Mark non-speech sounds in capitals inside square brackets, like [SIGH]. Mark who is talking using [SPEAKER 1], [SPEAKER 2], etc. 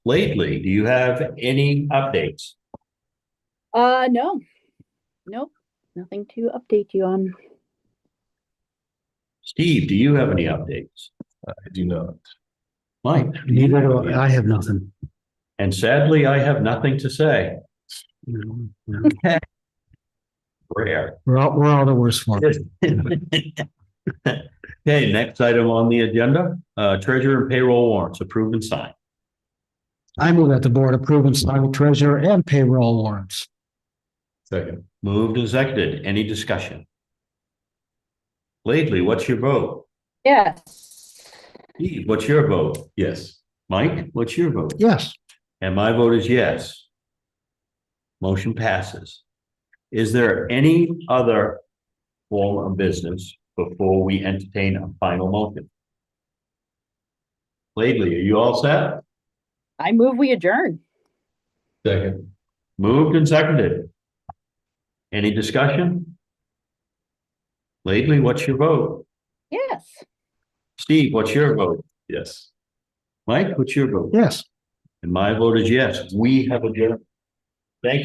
[SPEAKER 1] lately. Do you have any updates?
[SPEAKER 2] Uh, no. Nope, nothing to update you on.
[SPEAKER 1] Steve, do you have any updates?
[SPEAKER 3] I do not.
[SPEAKER 1] Mike?
[SPEAKER 4] Neither do I, I have nothing.
[SPEAKER 1] And sadly, I have nothing to say.
[SPEAKER 4] you know, yeah.
[SPEAKER 3] [LAUGHS]
[SPEAKER 1] Rare.
[SPEAKER 4] We're all, we're all the worst for it.
[SPEAKER 1] Okay, next item on the agenda, uh, treasurer and payroll warrants approved and signed.
[SPEAKER 4] I move that the board approve and sign the treasurer and payroll warrants.
[SPEAKER 3] Second,
[SPEAKER 1] Moved and seconded. Any discussion? Lately, what's your vote?
[SPEAKER 2] Yes.
[SPEAKER 1] Steve, what's your vote?
[SPEAKER 3] yes,
[SPEAKER 1] Mike, what's your vote?
[SPEAKER 4] Yes,
[SPEAKER 1] And my vote is yes. Motion passes. Is there any other form of business before we entertain a final motion? Lately, are you all set?
[SPEAKER 2] I move we adjourn.
[SPEAKER 3] second,
[SPEAKER 1] Moved and seconded. Any discussion? Lately, what's your vote?
[SPEAKER 2] Yes.
[SPEAKER 1] Steve, what's your vote?
[SPEAKER 3] yes.
[SPEAKER 1] Mike, what's your vote?
[SPEAKER 4] yes.
[SPEAKER 1] And my vote is yes, we have adjourned.